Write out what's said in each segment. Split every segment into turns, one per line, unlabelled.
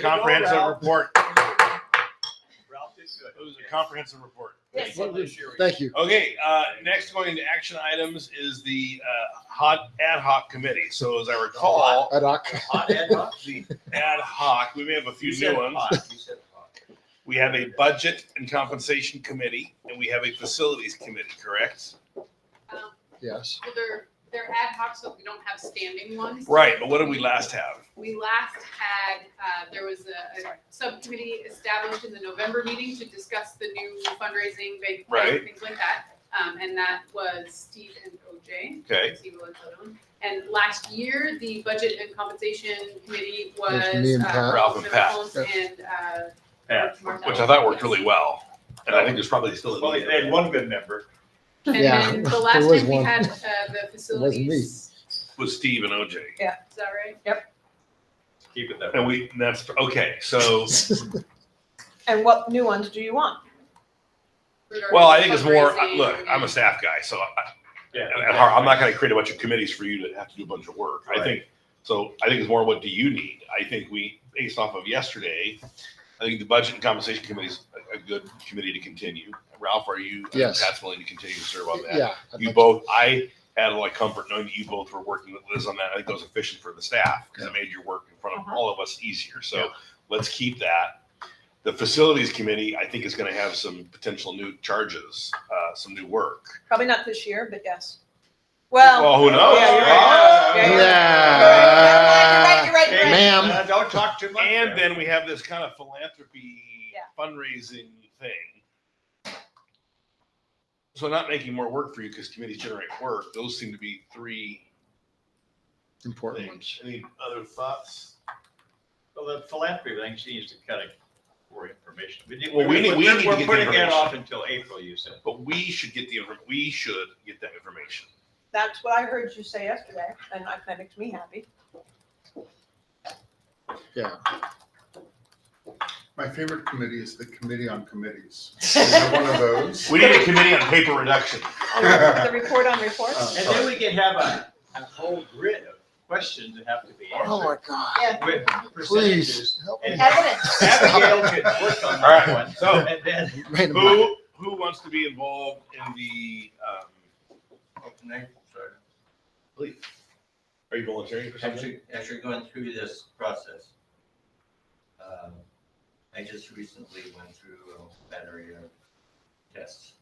comprehensive
Ralph.
report.
Ralph did good.
It was a comprehensive report.
Yes.
Well, this year we-
Thank you.
Okay, uh, next going into action items is the uh, hot ad hoc committee. So as I recall,
Ad hoc.
Hot ad hoc?
the ad hoc, we may have a few
said
new ones.
hot. You said hot.
We have a budget and compensation committee, and we have a facilities committee, correct?
Um,
Yes.
Well, they're, they're ad hoc, so we don't have standing ones.
Right, but what did we last have?
We last had, uh, there was a, a subcommittee established in the November meeting to discuss the new fundraising, big,
Right.
things like that. Um, and that was Steve and OJ.
Okay.
Steve Lozano. And last year, the budget and compensation committee was.
It was me and
uh,
Pat.
Ralph and Pat.
Holmes And, uh.
Pat,
Mark-
Which I thought worked really well, and I think there's probably still. a
Well,
need.
they had one good member.
And
Yeah,
then the
there
last
was
time we
one.
had, uh, the facilities,
With Steve and OJ,
is that right?
Keep it that way.
and we, and that's, okay, so,
And what new ones do you want?
well, I think it's more, uh,
Fundraising
look, I'm a
and-
staff guy, so I,
Yeah.
at heart, I'm not gonna create a bunch of committees for you to have to do a bunch of work. I
Right.
think, so I think it's more what do you need? I think we, based off of yesterday, I think the budget and compensation committee is a, a good committee to continue. Ralph, are you, I think
Yes.
Pat's willing to continue to serve on that?
Yeah. I'd
You
like-
both, I had a lot of comfort knowing that you both were working with Liz on that. I think that was efficient for the staff because it made your work in front of
Uh-huh.
all of us easier. So let's keep that. The facilities committee, I think, is going to have some potential new charges, uh, some new work.
Probably not this year, but yes. Well.
Well, who knows?
yeah, you're
Ah.
right. Yeah, you're right.
Yeah.
You're right, you're right, you're right, you're right.
Ma'am.
Uh, Don't talk too much.
And
there.
then we have this kind of philanthropy
Yeah.
fundraising thing. So not making more work for you because committees generate work. Those seem to be three
Important ones.
things. Any other thoughts?
Well, the philanthropy thing, she needs to kind of more information. We
Well, we need- we
we're-
need to
We're
get the
putting that
information.
off until April, you said.
But we should get the, infor- we should get that information.
That's what I heard you say yesterday, and that that makes me happy.
Yeah.
My favorite committee is the Committee on Committees. Is there one of those?
We need a committee on paper reduction.
The report on reports?
Uh,
And then we can have a, a whole grid of questions that have to be
Oh my
answered.
God.
Yeah.
With percentages.
Please help me.
And
Evidence.
Abigail could work on
All right,
that one.
so-
And then,
Wait a minute.
Who, who wants to be involved in the, um, please? Are you volunteering for
As
something?
you, as you're going through this process, um, I just recently went through a battery of tests,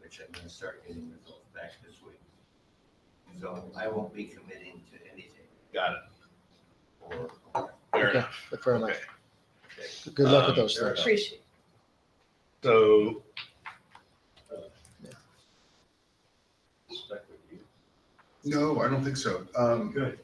which I'm gonna start getting results back this week. So I won't be committing to anything
Got it.
or
Fair
Okay,
enough.
Fair enough.
Okay.
Good luck with
Um,
those things.
Appreciate.
So,
stuck with you.
No, I don't think so. Um,
Good.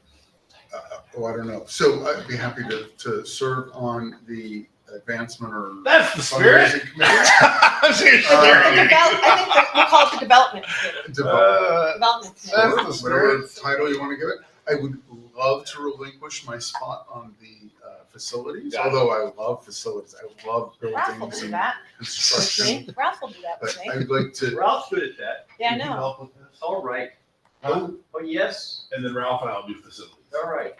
uh, oh, I don't know. So I'd be happy to, to serve on the advancement or.
that's the spirit.
fundraising committee.
I'm serious.
All
I think
right.
the develop- I think the- we'll call it the development, committee.
Develop-
Uh,
development. committee.
Sure, Whatever title you want to give it. I would love to relinquish my spot on the uh, facilities,
Got it.
although I love facilities. I love
Ralph will
buildings
do
and
that.
construction.
Ralph will do that
But
with me.
I would like to
Ralph's good at that.
Yeah, I
You can
know.
help with this. All right. Oh, oh, yes.
And then Ralph and I'll do facilities.
All right.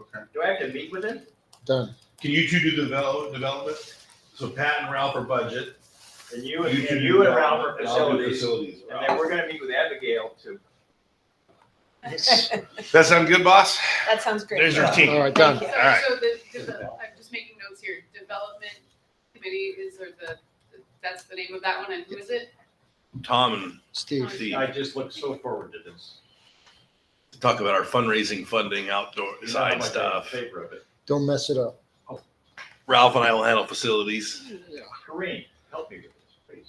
Okay.
Do I have to meet with him?
Done.
Can you two do develop, development? So Pat and Ralph are budget.
And you, and
two do
you and Ralph
development,
are
and I'll do
facilities.
Facilities.
And then we're gonna meet with Abigail too.
That sound good, boss?
That sounds great.
There's your
Yeah.
team.
All right, done.
Thank you.
All right.
So, so the, devel- I'm just making notes here, development committee is, or the, that's the name of that one, and who is it?
Tom and
Steve.
Steve.
I just look so forward to this.
to talk about our fundraising, funding, outdoor
You know how
side
much I'm in
stuff.
Favor of it.
Don't mess it up.
Ralph and I will handle facilities.
Kareem, help me with this,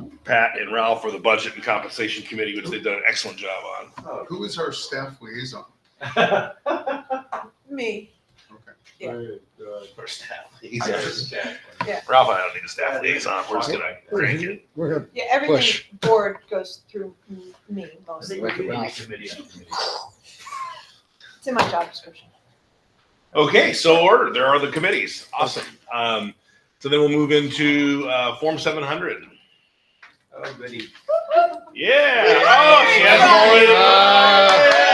please.
Pat and Ralph are the budget and compensation committee, which they've done an excellent job on.
Oh.
Who is our staff liaison?
Me.
Okay.
Yeah.
Our staff
I
liaison.
understand.
Ralph and I don't need a staff liason. We're just gonna crank it.
We're gonna
Yeah,
Push.
everything board goes through m- me
I
mostly.
think we
Like
need to be
Ralph.
committee on committee.
It's in my job description.
Okay, so ordered. There are the committees. Awesome. Um, so then we'll move into, uh, Form seven hundred.
Oh, goody.
Yeah. Oh, she has more.
Ah.